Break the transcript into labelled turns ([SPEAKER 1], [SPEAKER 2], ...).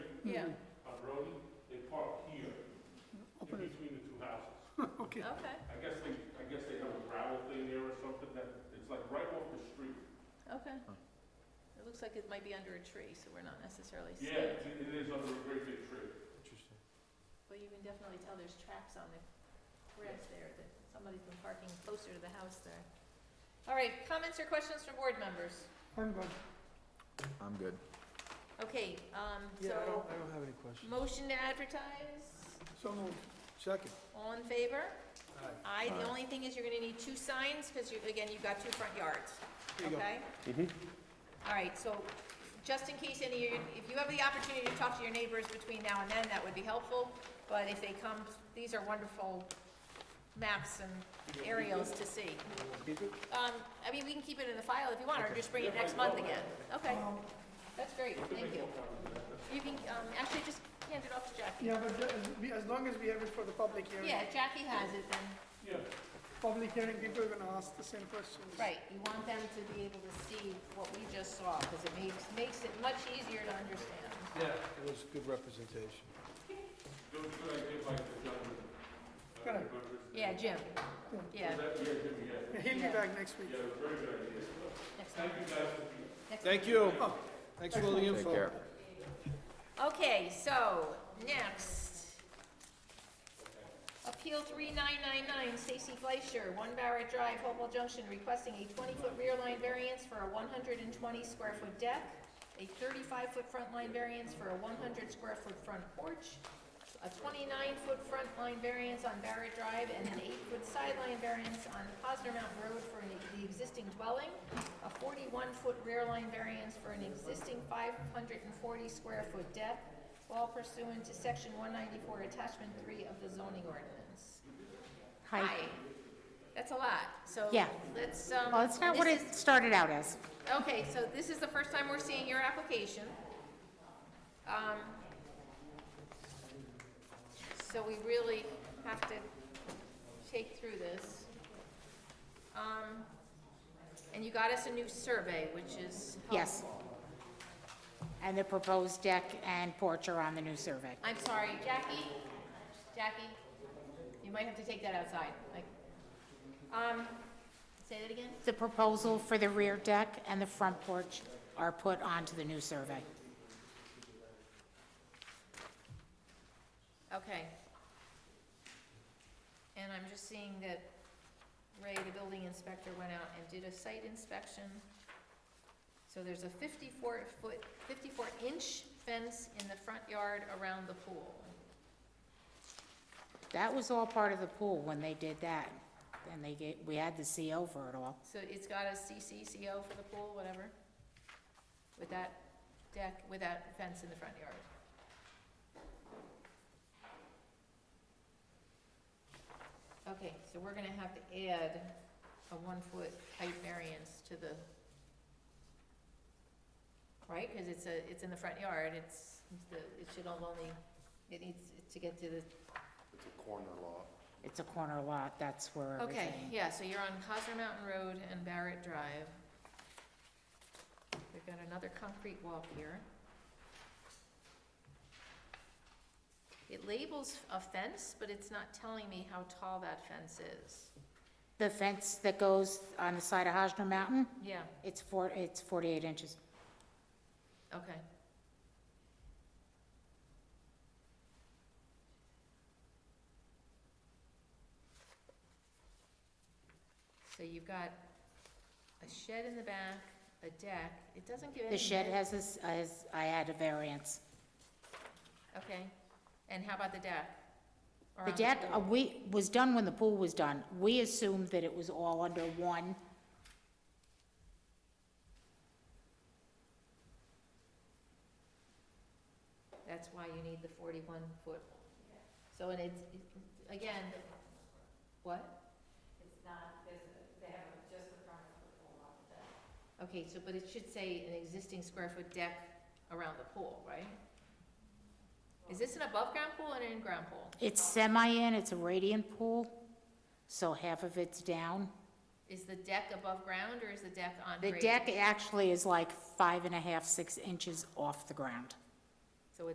[SPEAKER 1] Yeah,
[SPEAKER 2] on Brody, they park here, in
[SPEAKER 3] Open it.
[SPEAKER 2] between the two houses.
[SPEAKER 3] Okay,
[SPEAKER 1] okay,
[SPEAKER 2] I guess they, I guess they have a gravel thing there or something that, it's like right off the street.
[SPEAKER 1] okay. It looks like it might be under a tree, so we're not necessarily seeing
[SPEAKER 2] Yeah,
[SPEAKER 1] it.
[SPEAKER 2] it's- it is under a great big tree.
[SPEAKER 4] Interesting.
[SPEAKER 1] But you can definitely tell there's tracks on the grass there, that somebody's been parking closer to the house there. All right, comments or questions from board members?
[SPEAKER 3] I'm good.
[SPEAKER 4] I'm good.
[SPEAKER 1] Okay, um,
[SPEAKER 4] Yeah, I don't,
[SPEAKER 1] so,
[SPEAKER 4] I don't have any questions.
[SPEAKER 1] motion to advertise,
[SPEAKER 3] So moved. Second.
[SPEAKER 1] all in favor?
[SPEAKER 3] Aye.
[SPEAKER 1] Aye, the
[SPEAKER 4] Aye.
[SPEAKER 1] only thing is you're gonna need two signs, because you, again, you've got two front yards,
[SPEAKER 3] There you go.
[SPEAKER 1] okay? All right, so, just in case any, of you- if you have the opportunity to talk to your neighbors between now and then, that would be helpful, but if they come, these are wonderful maps and aerials to see. Um, I mean, we can keep it in the file if you want, or just bring it next month again, okay? That's great, thank you. You can, um, actually, just hand it off to Jackie.
[SPEAKER 3] Yeah, but ju- as we- as long as we have it for the public hearing.
[SPEAKER 1] Yeah, if Jackie has it, then.
[SPEAKER 2] Yeah,
[SPEAKER 3] Public hearing, people are gonna ask the same questions.
[SPEAKER 1] Right, you want them to be able to see what we just saw, because it makes, makes it much easier to understand.
[SPEAKER 4] It was good representation.
[SPEAKER 2] good, good idea by the gentleman. uh,
[SPEAKER 3] Good.
[SPEAKER 2] Goodrich.
[SPEAKER 1] Yeah, Jim, yeah,
[SPEAKER 2] Was that- Yeah, Jimmy,
[SPEAKER 3] Yeah,
[SPEAKER 2] yeah.
[SPEAKER 3] He'll be
[SPEAKER 1] Yeah.
[SPEAKER 3] back next week.
[SPEAKER 2] Yeah, it was a very good idea.
[SPEAKER 1] next time,
[SPEAKER 2] Thank you guys for being.
[SPEAKER 1] next time.
[SPEAKER 4] Thank you. Thanks for all the info.
[SPEAKER 5] Take care.
[SPEAKER 1] Okay, so, next. Appeal three nine nine nine, Stacy Fleischer, One Barrett Drive, Hopewell Junction, requesting a twenty-foot rear line variance for a one hundred and twenty square foot deck, a thirty-five foot front line variance for a one hundred square foot front porch, a twenty-nine foot front line variance on Barrett Drive, and an eight foot sideline variance on Posner Mountain Road for an- the existing dwelling, a forty-one foot rear line variance for an existing five hundred and forty square foot deck, all pursuant to section one ninety-four, attachment three of the zoning ordinance.
[SPEAKER 6] Hi.
[SPEAKER 1] That's a lot, so.
[SPEAKER 6] Yeah.
[SPEAKER 1] Let's, um.
[SPEAKER 6] Well, it's not what
[SPEAKER 1] this Oh.
[SPEAKER 6] it started out as.
[SPEAKER 1] is- Okay, so this is the first time we're seeing your application. Um, so we really have to take through this. Um, and you got us a new survey, which is
[SPEAKER 6] Yes.
[SPEAKER 1] helpful.
[SPEAKER 6] And the proposed deck and porch are on the new survey.
[SPEAKER 1] I'm sorry, Jackie, Jackie, you might have to take that outside, like, um, say that again?
[SPEAKER 6] The proposal for the rear deck and the front porch are put onto the new survey.
[SPEAKER 1] Okay. And I'm just seeing that Ray, the building inspector, went out and did a site inspection. So there's a fifty-four foot, fifty-four inch fence in the front yard around the pool.
[SPEAKER 6] That was all part of the pool when they did that. And they get, we had the CO for it all.
[SPEAKER 1] So it's got a CCCO for the pool, whatever, with that deck, with that fence in the front yard. Okay, so we're gonna have to add a one-foot height variance to the, right, because it's a, it's in the front yard, it's, the, it should only, it needs to get to the
[SPEAKER 5] It's a corner lot.
[SPEAKER 6] It's a corner lot, that's where
[SPEAKER 1] Okay,
[SPEAKER 6] everything.
[SPEAKER 1] yeah, so you're on Cosner Mountain Road and Barrett Drive. We've got another concrete walk here. It labels a fence, but it's not telling me how tall that fence is.
[SPEAKER 6] The fence that goes on the side of Hosner Mountain,
[SPEAKER 1] Yeah,
[SPEAKER 6] it's four, it's forty-eight inches.
[SPEAKER 1] okay. So you've got a shed in the back, a deck, it doesn't give any.
[SPEAKER 6] The shed
[SPEAKER 1] men-
[SPEAKER 6] has this, has, I had a variance.
[SPEAKER 1] Okay, and how about the deck? Or
[SPEAKER 6] The
[SPEAKER 1] on
[SPEAKER 6] deck,
[SPEAKER 1] pool?
[SPEAKER 6] uh, we, was done when the pool was done. We assumed that it was all under one.
[SPEAKER 1] That's why you need the forty-one foot. So, and it's, it- again, what? It's not, they have just the front of the pool, not the deck. Okay, so, but it should say an existing square foot deck around the pool, right? Is this an above-ground pool and an in-ground pool?
[SPEAKER 6] It's semi-in, it's a radiant pool, so half of it's down.
[SPEAKER 1] Is the deck above ground or is the deck on
[SPEAKER 6] The
[SPEAKER 1] grade?
[SPEAKER 6] deck actually is like five and a half, six inches off the ground.